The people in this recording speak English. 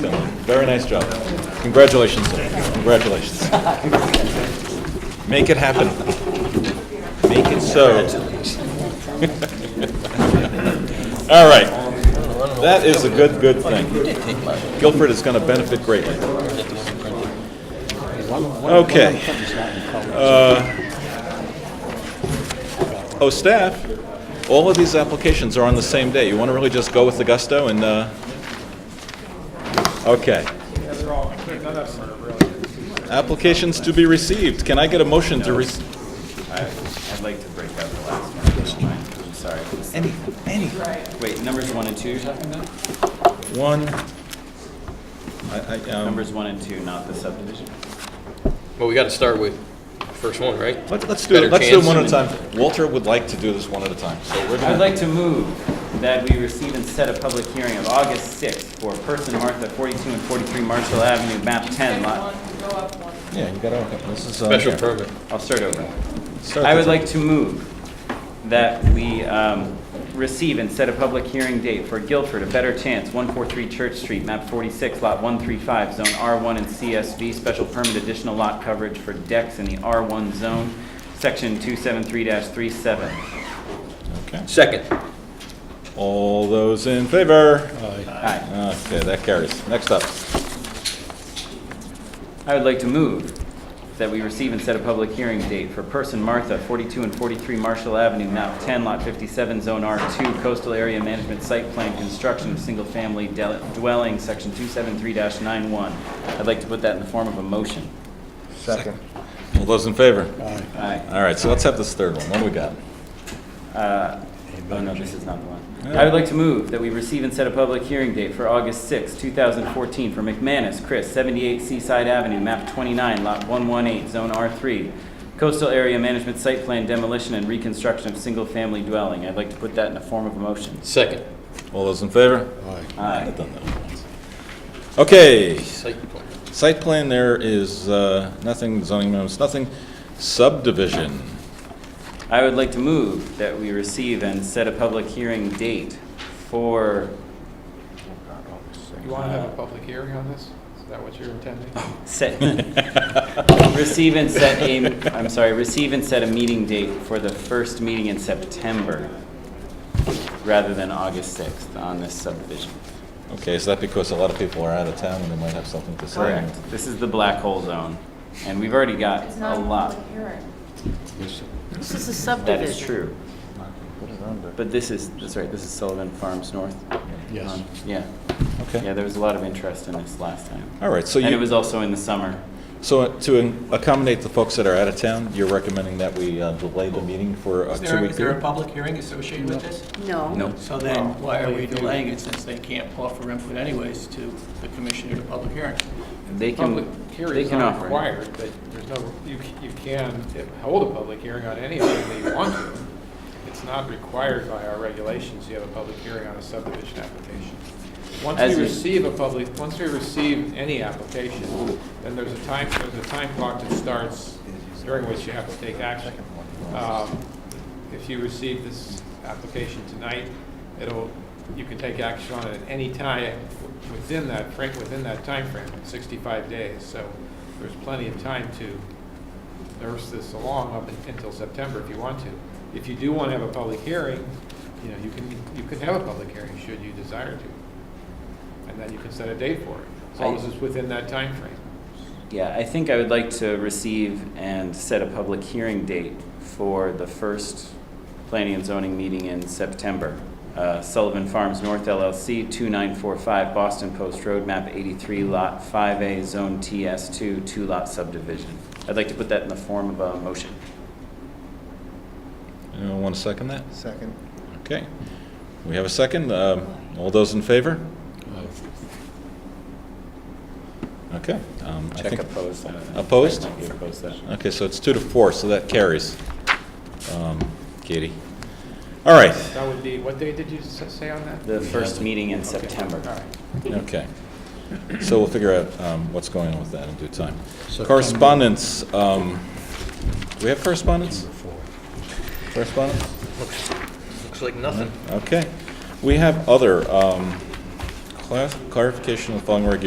So, very nice job. Congratulations, sir. Congratulations. Make it happen. Make it so. All right. That is a good, good thing. Guilford is going to benefit greatly. Okay. Uh, Oh, staff, all of these applications are on the same day. You want to really just go with the gusto and, uh, okay. Applications to be received. Can I get a motion to rec, I'd like to break out the last one. I'm sorry. any, any, Wait, numbers one and two you're talking about? one? I, I, um, Numbers one and two, not the subdivision. Well, we got to start with first one, right? let's, let's do, it. Better let's do it chance. one at a time. Walter would like to do this one at a time, so we're I'd gonna, like to move that we receive and set a public hearing of August 6th for Person Martha 42 and 43 Marshall Avenue, map 10 lot. yeah, you gotta, okay, this is, uh, Special here. permit. I'll start over. Start I the would time. like to move that we um, receive and set a public hearing date for Guilford, A Better Chance, 143 Church Street, map 46, lot 135, zone R1 and CSV, special permit additional lot coverage for decks in the R1 zone, section 273-37. Okay. Second. All those in favor? Aye. Okay, that carries. Next up. I would like to move that we receive and set a public hearing date for Person Martha, 42 and 43 Marshall Avenue, map 10, lot 57, zone R2, coastal area management site plan, construction of single-family del- dwelling, section 273-91. I'd like to put that in the form of a motion. Second. All those in favor? Aye. All right, so let's have this third one. What do we got? Uh, Oh, no, this is not the one. I would like to move that we receive and set a public hearing date for August 6, 2014, for McManus, Chris, 78 Seaside Avenue, map 29, lot 118, zone R3, coastal area management site plan demolition and reconstruction of single-family dwelling. I'd like to put that in the form of a motion. Second. All those in favor? Aye. I've done that one once. Okay, Site plan. site plan, there is uh, nothing, zoning amendments, nothing. Subdivision, I would like to move that we receive and set a public hearing date for, You want to have a public hearing on this? Is that what you're intending? set, receive and set a, I'm sorry, receive and set a meeting date for the first meeting in September rather than August 6th on this subdivision. okay, is that because a lot of people are out of town and they might have something to say? Correct. This is the black hole zone, and we've already got It's a not a lot. public hearing. This is a That is subdivision. true. But this is, that's right, this is Sullivan Farms North. Yes. Yeah. Yeah, Okay, there was a lot of interest in this last time. all right, so And it was you, also in the summer. so to accommodate the folks that are out of town, you're recommending that we uh, delay the meeting for a Is there, two-week is there a period? public hearing associated with this? No. No. So then, why are we delaying it since they can't offer input anyways to the commissioner at a public hearing? They Public can, hearing they is can not offer. required, but there's no, you, c- you can hold a public hearing on anything that you want to. It's not required by our regulations, you have a public hearing on a subdivision application. Once As we in- receive a public, once we receive any application, then there's a time, there's a time clock that starts during which you have to take action. Um, If you receive this application tonight, it'll, you can take action on it at any time within that, fr- within that timeframe, 65 days. So there's plenty of time to nurse this along up until September if you want to. If you do want to have a public hearing, you know, you can, you could have a public hearing should you desire to. And then you can set a date for it, as long as it's within that time frame. Yeah, I think I would like to receive and set a public hearing date for the first planning and zoning meeting in September. Uh, Sullivan Farms North LLC, 2945 Boston Post Road, map 83, lot 5A, zone TS2, two-lot subdivision. I'd like to put that in the form of a motion. Anyone want to second that? Second. Okay, we have a second. Um, All those in favor? Okay. um, I Check think- opposed. I don't know. Opposed? Might be opposed that. Okay, so it's two to four, so that carries. Um, Katie. All right, That would be, what day did you s- say on that? The first meeting in Okay, September. All right. okay. So we'll figure out um, what's going on with that in due time. Correspondence, um, do we have correspondence? Correspondence? Looks like nothing. Okay. We have other um, clar- clarification of following regulations